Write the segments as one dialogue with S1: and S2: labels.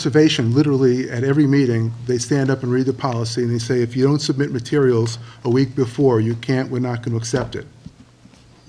S1: Conservation, literally, at every meeting, they stand up and read the policy, and they say, if you don't submit materials a week before, you can't, we're not going to accept it.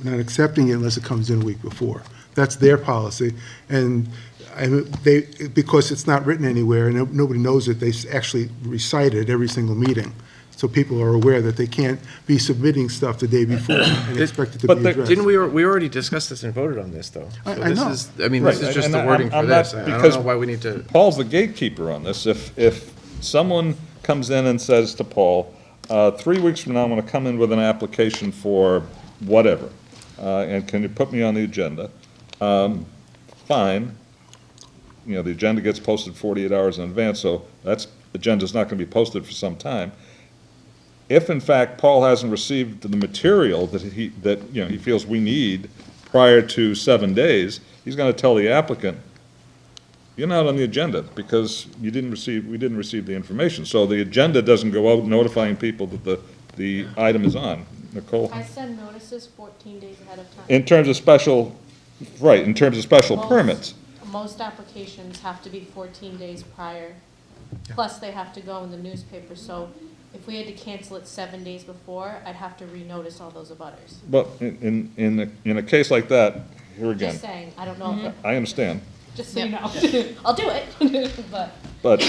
S1: We're not accepting it unless it comes in a week before. That's their policy, and I- they, because it's not written anywhere, and no- nobody knows it, they s- actually recite it every single meeting. So people are aware that they can't be submitting stuff the day before and expect it to
S2: But
S1: be
S2: the-
S1: addressed.
S3: Didn't we, al- we already discussed this and voted on this, though?
S1: I-
S3: So
S1: I
S3: this
S1: know.
S3: is- I mean, this
S2: Right,
S3: is just
S2: and
S3: the
S2: I'm-
S3: wording for
S2: I'm not-
S3: this. I I don't
S2: because-
S3: know why we need to,
S2: Paul's the gatekeeper on this. If, if someone comes in and says to Paul, uh, three weeks from now, I'm gonna come in with an application for whatever, uh, and can you put me on the agenda? Um, fine. You know, the agenda gets posted forty-eight hours in advance, so that's, agenda's not gonna be posted for some time. If in fact Paul hasn't received the material that he, that, you know, he feels we need prior to seven days, he's gonna tell the applicant, you're not on the agenda because you didn't receive, we didn't receive the information. So the agenda doesn't go out notifying people that the, the item is on. Nicole?
S4: I send notices fourteen days ahead of time.
S2: In terms of special, right, in terms of special permits,
S4: Most applications have to be fourteen days prior, plus they have to go in the newspaper, so if we had to cancel it seven days before, I'd have to renotice all those abutters.
S2: but in, in, in a- in a case like that, here again,
S4: Just saying, I don't know,
S2: I understand.
S4: just so you know, I'll do it, but.
S2: But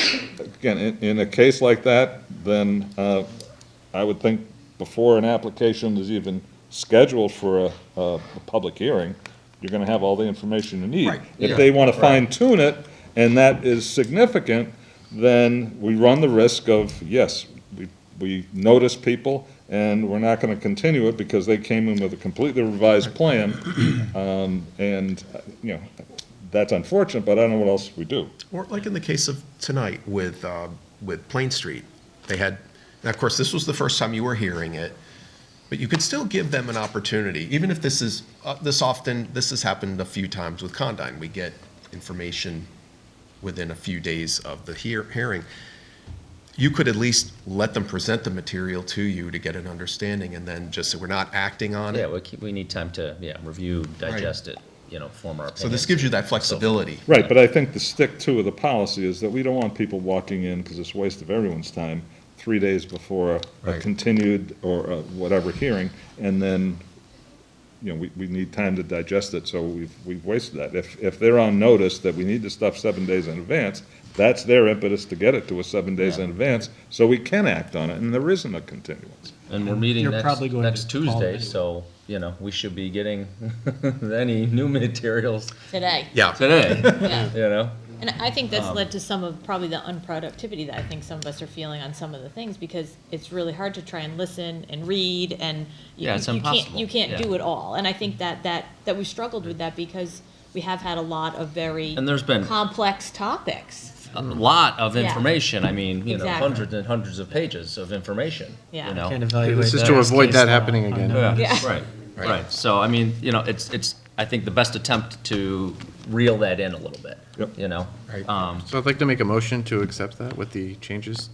S2: again, in, in a case like that, then uh, I would think before an application is even scheduled for a, a, a public hearing, you're gonna have all the information you need.
S3: Right,
S2: If
S3: yeah,
S2: they wanna
S3: right.
S2: fine tune it, and that is significant, then we run the risk of, yes, we, we notice people, and we're not gonna continue it because they came in with a completely revised plan. Um, and, uh, you know, that's unfortunate, but I don't know what else we do.
S3: Or like in the case of tonight with, uh, with Plain Street, they had, now of course, this was the first time you were hearing it, but you could still give them an opportunity, even if this is, uh, this often, this has happened a few times with Condyne. We get information within a few days of the hear, hearing. You could at least let them present the material to you to get an understanding and then just say, we're not acting on
S5: Yeah,
S3: it.
S5: we keep, we need time to, yeah, review, digest it, you know, form our opinions.
S3: So this gives you that flexibility.
S2: Right, but I think the stick to of the policy is that we don't want people walking in, because it's a waste of everyone's time, three days before a
S3: Right.
S2: continued or a whatever hearing, and then, you know, we, we need time to digest it, so we've, we've wasted that. If, if they're on notice that we need the stuff seven days in advance, that's their impetus to get it to us seven days in advance, so we can act on it, and there isn't a continuance.
S5: And we're meeting
S6: You're
S5: next,
S6: probably going
S5: next
S6: to call them
S5: Tuesday,
S6: anyway.
S5: so, you know, we should be getting any new materials
S7: today.
S3: Yeah.
S5: today,
S7: Yeah.
S5: you know?
S7: And I think
S5: Um,
S7: that's led to some of probably the unproductivity that I think some of us are feeling on some of the things because it's really hard to try and listen and read and you,
S5: Yeah, it's
S7: you
S5: impossible.
S7: can't you can't
S5: Yeah. Mm-hmm.
S7: do it all. And I think that that that we struggled with that because we have had a lot of very
S5: And there's been-
S7: complex topics.
S5: A lot of
S7: Yeah.
S5: information, I mean, you know,
S7: Exactly.
S5: hundreds and hundreds of pages of information, you
S7: Yeah.
S5: know?
S6: Can't evaluate
S3: This is
S6: that
S3: to
S6: as
S3: avoid
S6: case
S3: that
S6: law.
S3: happening
S6: I
S3: again.
S6: know.
S7: Yeah.
S5: Right,
S3: Right.
S5: right. So, I mean, you know, it's, it's, I think the best attempt to reel that in a little bit,
S2: Yep.
S5: you know?
S3: Right.
S5: Um,
S3: So I'd like to make a motion to accept that with the changes.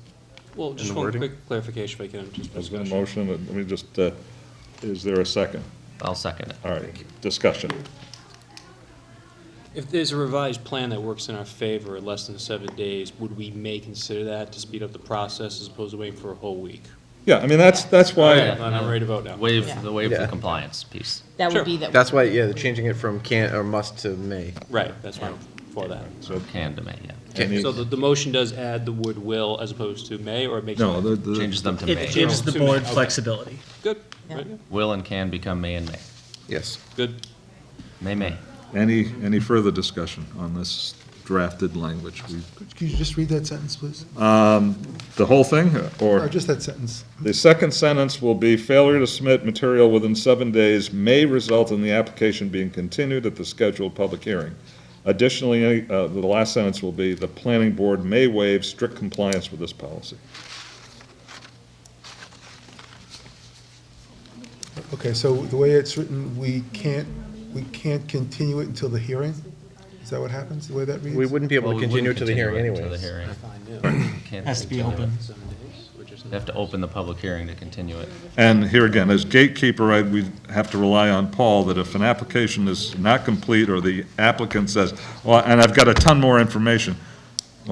S8: Well, just
S3: the
S8: one
S3: wording?
S8: quick clarification, we can just
S2: Is there a
S8: discuss.
S2: motion, let me just, uh, is there a second?
S5: I'll second it.
S2: All right, discussion.
S8: If there's a revised plan that works in our favor in less than seven days, would we may consider that to speed up the process as opposed to waiting for a whole week?
S2: Yeah, I mean, that's, that's why,
S8: I'm I'm ready to vote now.
S5: Waive,
S7: Yeah.
S5: the waive
S9: Yeah.
S5: the compliance piece.
S7: That
S8: Sure.
S7: would be that
S9: That's why, yeah, they're changing it from can or must to may.
S8: Right, that's why I'm for that.
S5: Can to May, yeah.
S2: Any-
S8: So the, the motion does add the word will as opposed to may, or it makes.
S2: no, the,
S9: Mm.
S2: the.
S5: Changes them to May.
S6: It gives the board flexibility.
S8: Good,
S7: Yeah.
S8: right, yeah.
S5: Will and can become may and may.
S9: Yes.
S8: good.
S5: May, may.
S2: Any, any further discussion on this drafted language? We-
S1: Could you just read that sentence, please?
S2: The whole thing,
S1: Or
S2: or
S1: just that sentence?
S2: the second sentence will be, failure to submit material within seven days may result in the application being continued at the scheduled public hearing. Additionally, any- uh, the last sentence will be, the planning board may waive strict compliance with this policy.
S1: Okay, so the way it's written, we can't, we can't continue it until the hearing? Is that what happens, the way that reads?
S9: We wouldn't be able to continue it to the hearing
S5: To the
S9: anyways.
S5: hearing. Can't
S6: Has to be
S5: continue
S6: open.
S5: it. You have to open the public hearing to continue it.
S2: And here again, as gatekeeper, I, we have to rely on Paul, that if an application is not complete, or the applicant says, well, and I've got a ton more information,